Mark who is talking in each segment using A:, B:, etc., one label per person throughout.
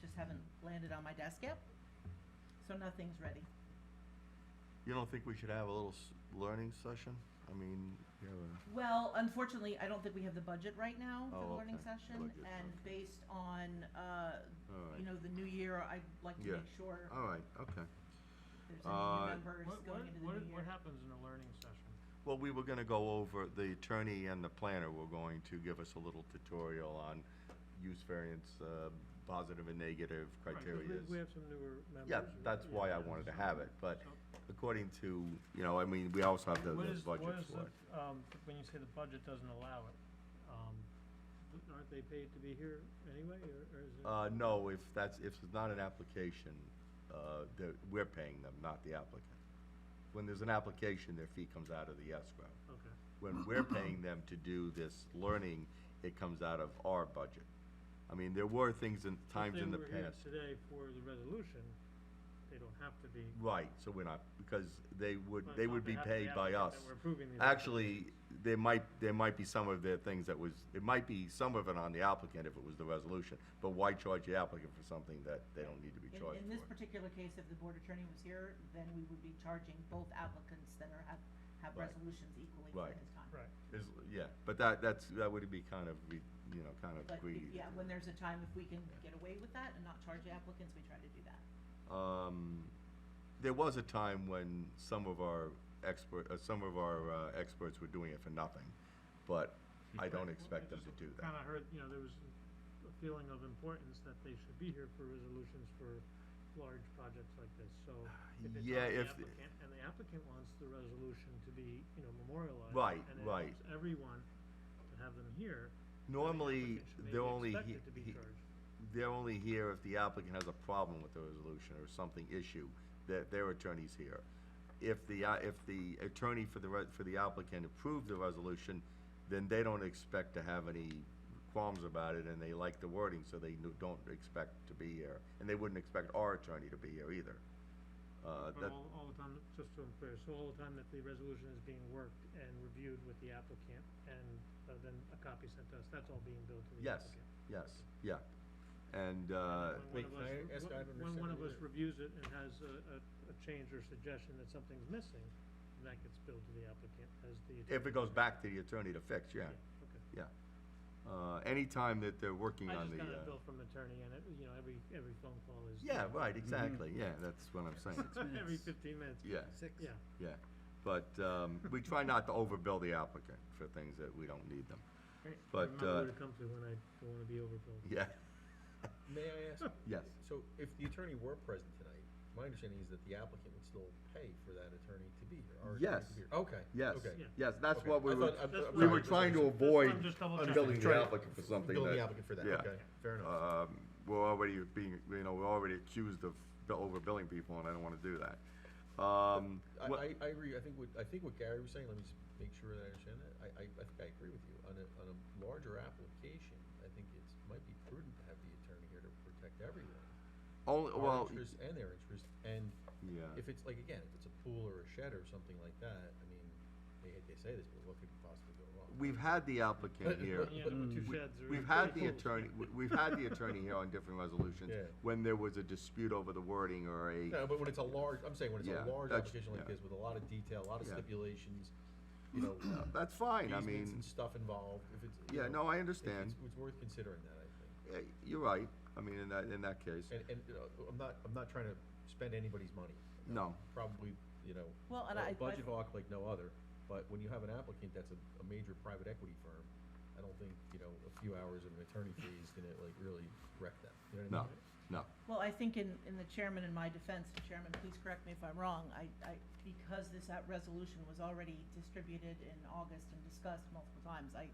A: just haven't landed on my desk yet. So nothing's ready.
B: You don't think we should have a little s- learning session? I mean, you know, uh,
A: Well, unfortunately, I don't think we have the budget right now for the
B: Oh,
A: learning
B: okay.
A: session,
B: Budget,
A: and
B: okay.
A: based on, uh,
B: all
A: you
B: right,
A: know, the new year, I'd like to
B: Yeah.
A: make sure
B: all right, okay.
A: there's
B: Uh,
A: any new members
C: What, what,
A: going into the new
C: what,
A: year.
C: what happens in a learning session?
B: Well, we were gonna go over, the attorney and the planner were going to give us a little tutorial on use variance, uh, positive and negative
C: Right, 'cause
B: criteria.
C: We, we have some newer members.
B: Yeah,
C: and-
B: that's why I
C: yeah,
B: wanted to
C: so-
B: have it, but
C: so-
B: according to, you know, I mean, we also have the
C: What
B: the
C: is-
B: budget
C: what is
B: for
C: the-
B: it.
C: Um, when you say the budget doesn't allow it, um, th- aren't they paid to be here anyway, or, or is it?
B: Uh, no, if that's, if it's not an application, uh, that, we're paying them, not the applicant. When there's an application, their fee comes out of the escrow.
C: Okay,
B: when we're paying them to do this learning, it comes out of our budget. I mean, there were things in,
C: If
B: times
C: they
B: in the
C: were here
B: past.
C: Today for the resolution, they don't have to be.
B: Right, so we're not, because they would,
C: well, it's
B: they
C: not
B: would
C: they
B: be
C: have to
B: paid by
C: applicant
B: us.
C: that We're approving these.
B: Actually, there might, there might be some of the things that was, it might be some of it on the applicant if it was the resolution, but why charge the applicant for something that they don't need to be
A: In-
B: charged
A: In this
B: for?
A: particular case, if the board attorney was here, then we would be charging both applicants that are, have, have
B: Right.
A: resolutions equally
B: Right.
A: for his time.
C: Right,
B: Is- yeah, but that, that's, that would be kind of, re- you know, kind of
A: But,
B: greedy.
A: if-
B: to
A: yeah,
B: do
A: when
B: that.
A: there's a time, if we can get away with that and not charge the applicants, we try to do that.
B: um, there was a time when some of our expert, uh, some of our uh, experts were doing it for nothing, but I don't expect them to do that.
C: kinda heard, you know, there was a feeling of importance that they should be here for resolutions for large projects like this, so. if it's
B: Yeah,
C: on the
B: if the-
C: applicant And the applicant wants the resolution to be, you know, memorialized.
B: Right,
C: and it
B: right.
C: helps Everyone to have them here. then the
B: Normally,
C: applicant should maybe
B: they're only, he-
C: Expected to be
B: he- uh,
C: charged.
B: they're only here if the applicant has a problem with the resolution or something issue, that their attorney's here. If the, uh, if the attorney for the, re- for the applicant approved the resolution, then they don't expect to have any qualms about it, and they like the wording, so they no- don't expect to be here, and they wouldn't expect our attorney to be here either. Uh,
C: But
B: that,
C: all, all the time, just so I'm clear, so all the time that the resolution is being worked and reviewed with the applicant and uh, then a copy sent to us, that's all being billed to the
B: Yes.
C: applicant.
B: yes, yeah, and, uh,
C: When
D: Wait,
C: one of
D: can I
C: us re-
D: ask? I haven't
C: When one of
D: understood
C: us
D: either.
C: reviews it and has a, a, a change or suggestion that something's missing, then that gets billed to the applicant as the.
B: if
C: attorney.
B: it goes back to the attorney to fix, yeah,
C: Okay.
B: yeah. Uh, anytime that they're working
C: I
B: on the,
C: just got a
B: uh,
C: bill from attorney and it, you know, every, every phone call is.
B: yeah, right, exactly,
D: Mm-hmm.
B: yeah, that's what I'm saying,
C: Every
D: minutes.
C: fifteen minutes.
B: yeah,
D: Six.
C: Yeah,
B: yeah. But, um, we try not to overbill the applicant for things that we don't need them,
C: Right.
B: But,
C: Remember
B: uh,
C: who to come to when I don't wanna be overbilled.
B: yeah,
D: May I ask,
B: yes.
D: so if the attorney were present tonight, my understanding is that the applicant would still pay for that attorney to be here, our
B: Yes.
D: attorney to be here. Okay.
B: Yes,
D: okay,
C: Yeah.
B: yes, that's
D: okay.
B: what we
D: I
B: were,
D: thought- I'm-
C: That's
B: we
C: what
D: I'm sorry,
B: were
D: just-
B: trying to
C: that's what I'm
B: avoid
C: just double checking.
B: unbilling the
D: Trying-
B: applicant for something
D: Bill the
B: that,
D: applicant for that,
B: yeah.
D: okay, fair enough.
B: um, we're already being, you know, we're already accused of bill- overbilling people, and I don't wanna do that. Um,
D: I,
B: what-
D: I, I agree, I think what, I think what Gary was saying, let me just make sure that I understand that, I, I, I think I agree with you. On a, on a larger application, I think it's, might be prudent to have the attorney here to protect everyone.
B: Only,
D: Our
B: well,
D: interests and their interests, and
B: yeah,
D: if it's like, again, if it's a pool or a shed or something like that, I mean, they, they say this, but what could possibly go wrong?
B: we've had the applicant here.
C: Yeah, number
B: Mm.
C: two
B: We-
C: sheds are
B: We've
C: pretty
B: had the
C: cool.
B: attorney, we- we've had the attorney here on different resolutions
D: Yeah.
B: when there was a dispute over the wording or a,
D: No, but when it's a large, I'm saying when it's
B: Yeah,
D: a large
B: that's-
D: application like
B: yeah.
D: this with a lot of detail, a lot of
B: Yeah.
D: stipulations, you know, uh,
B: that's fine, I
D: easements
B: mean,
D: and stuff involved, if it's, you
B: yeah, no,
D: know,
B: I
D: it-
B: understand.
D: It's, it's worth considering that, I
B: Eh, You're right, I mean, in that, in that case,
D: think. And, and, you know, I'm not, I'm not trying to spend anybody's money. you know,
B: no,
D: Probably, you know,
A: Well, and
D: a
A: I- I-
D: budget hawk like no other, but when you have an applicant that's a, a major private equity firm, I don't think, you know, a few hours of an attorney fee is gonna like really wreck them, you know what I
B: no,
D: mean?
B: no.
A: Well, I think in, in the chairman, in my defense, Chairman, please correct me if I'm wrong, I, I, because this uh, resolution was already distributed in August and discussed multiple times, I,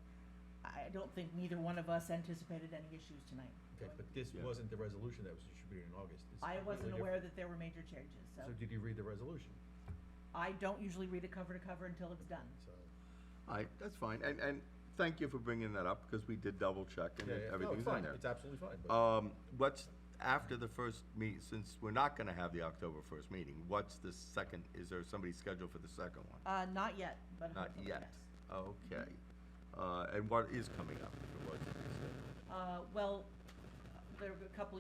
A: I don't think neither one of us anticipated any issues tonight.
D: Okay, but this
B: Yeah.
D: wasn't the resolution that was distributed in August. It's
A: I wasn't
D: completely
A: aware
D: different.
A: that there were major changes, so
D: So did you read the resolution?
A: I don't usually read it cover to cover until it's done.
D: So.
B: All right, that's fine, and, and thank you for bringing that up, because we did double check and
D: Yeah, yeah, no,
B: everything's
D: it's
B: in
D: fine.
B: there.
D: It's absolutely fine, but
B: Um, what's, after the first meet, since we're not gonna have the October first meeting, what's the second, is there somebody scheduled for the second one?
A: Uh, not yet, but
B: Not
A: hopefully,
B: yet,
A: yes.
B: okay. Uh, and what is coming up, if it wasn't?
A: Uh, well, there were a couple